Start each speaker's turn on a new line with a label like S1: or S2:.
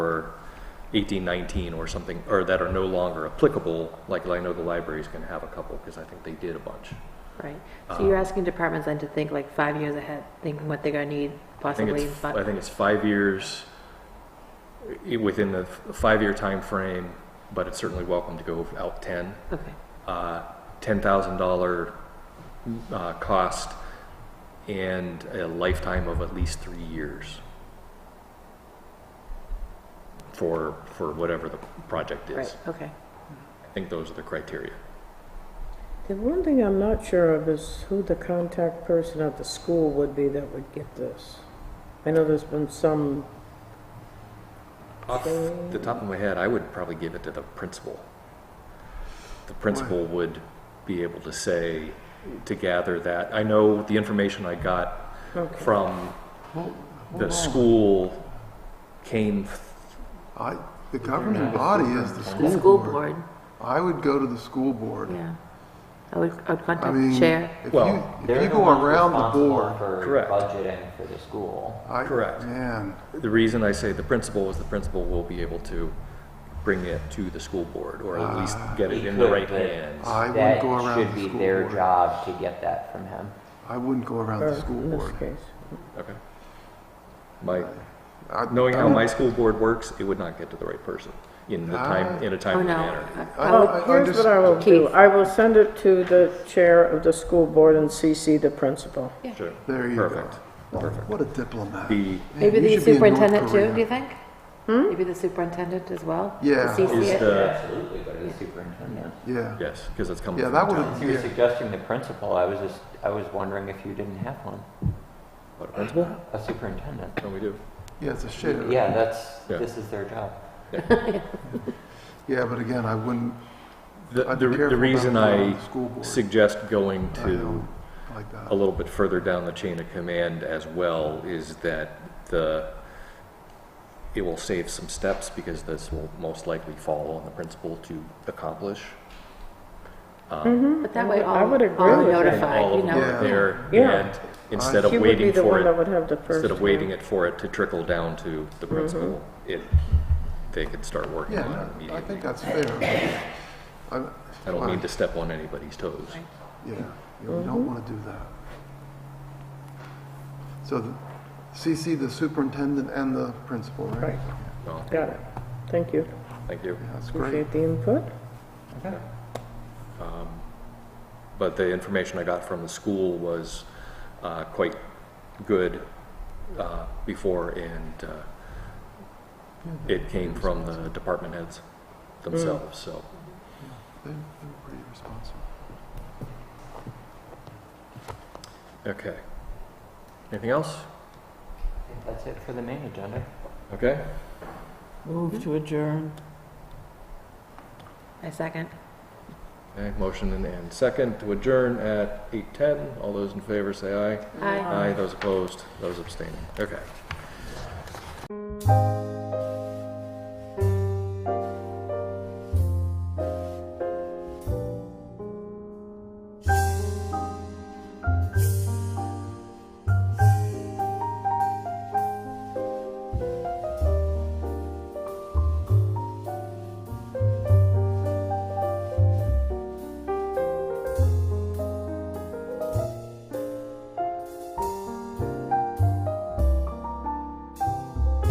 S1: eighteen, nineteen or something, or that are no longer applicable, like I know the library's gonna have a couple, because I think they did a bunch.
S2: Right.
S1: Uh-huh.
S2: So you're asking departments then to think like five years ahead, thinking what they're gonna need
S1: I think
S2: possibly. in
S1: it's,
S2: fi-
S1: I think it's five years, i- within the f- five-year time frame, but it's certainly welcome to go out ten.
S2: Okay,
S1: uh, $10,000 uh, cost and a lifetime of at least three years for, for whatever the project is.
S2: right, okay.
S1: I think those are the criteria.
S3: The one thing I'm not sure of is who the contact person at the school would be that would get this. I know there's been some,
S1: Off the top of my head, I would probably give it to the principal. The principal would be able to say, to gather that. I know the information I got
S3: okay,
S1: from
S4: Hold-
S1: the
S4: hold on.
S1: school came
S4: I, the governing body is the
S2: The
S4: school
S2: school
S4: board.
S2: board,
S4: I would go to the school board.
S2: yeah. I would, I would
S4: I
S2: contact
S4: mean,
S2: the chair.
S4: if
S1: Well,
S4: you, if
S5: They're
S4: you
S5: the
S4: go
S5: ones
S4: around the
S5: responsible
S4: board,
S1: Correct.
S5: For budgeting for the school.
S4: I,
S1: Correct.
S4: man,
S1: The reason I say the principal is the principal will be able to bring it to the school board, or at least
S4: Ah.
S1: get it
S5: He
S1: in the
S5: could,
S1: right
S5: but
S1: hands.
S4: I wouldn't
S5: That
S4: go around
S5: should
S4: the
S5: be
S4: school
S5: their
S4: board.
S5: job to get that from him.
S4: I wouldn't go around
S3: or
S4: the school
S3: uh, in this
S4: board.
S3: case.
S4: Ah.
S1: Okay. My,
S4: I-
S1: knowing how
S4: I'm-
S1: my school board works, it would not get to the right person in the
S4: ah.
S1: time, in a
S2: Oh,
S1: timely
S2: no.
S1: manner.
S2: I-
S4: I
S2: I
S4: don't-
S2: would-
S4: I- I
S3: Here's
S4: just-
S3: what I will do.
S2: Keith.
S3: I will send it to the chair of the school board and CC the principal.
S1: Sure.
S4: There you go.
S1: Perfect.
S4: What a diplomat.
S1: The,
S4: Man,
S2: Maybe the
S4: you should be in North
S2: superintendent too,
S4: Korea.
S2: do you think?
S3: Hmm?
S2: Maybe the superintendent as well? to
S4: Yeah.
S2: CC
S1: is
S2: it?
S1: the,
S5: Absolutely, go to the superintendent.
S4: Yeah,
S1: yes, because it's coming
S4: yeah,
S1: from
S4: that
S1: the
S4: would
S1: town.
S4: have,
S5: Since you were
S4: yeah.
S5: suggesting the principal, I was just, I was wondering if you didn't have one,
S1: What, a principal?
S5: a superintendent.
S1: No, we do.
S4: yeah, it's a shame.
S5: Yeah, that's,
S1: Yeah.
S5: this is their job.
S4: Yeah, but again, I wouldn't,
S1: The,
S4: I'd
S1: the
S4: be
S1: re-
S4: careful
S1: the
S4: about
S1: reason
S4: going
S1: I
S4: around the school board.
S1: suggest going
S4: I
S1: to
S4: don't like that.
S1: a little bit further down the chain of command as well is that the, it will save some steps because this will most likely fall on the principal to accomplish.
S2: But that way, all,
S3: I would
S2: all
S3: agree
S2: are
S3: with that.
S1: And all
S2: notified, you
S1: of them
S2: know?
S4: Yeah.
S1: are there,
S3: Yeah.
S1: and instead of
S3: She would be
S1: waiting
S3: the
S1: for
S3: one that
S1: it,
S3: would have the first.
S1: instead of waiting it for it to trickle down to the principal, it, they could start working
S4: Mm-hmm. Yeah,
S1: on it
S4: no, I
S1: immediately.
S4: think that's fair. I
S1: I don't mean to step on anybody's toes.
S4: Yeah, you
S3: Mm-hmm.
S4: don't want to do that. So the- CC the superintendent and the principal, right?
S3: Right,
S1: Well,
S3: got it. Thank you.
S1: thank you.
S4: Yeah, That's great.
S3: Appreciate the input.
S1: but the information I got from the school was uh, quite good uh, before, and uh, it came from the department heads themselves, so.
S4: They- They were pretty responsive.
S1: Okay. Anything else?
S5: I think That's it for the main agenda.
S1: Okay.
S3: Move to adjourn.
S2: A second.
S1: Okay, motion and- and second to adjourn at 8:10. All those in favor say aye.
S2: Aye.
S1: Aye, those opposed, those abstaining. Okay.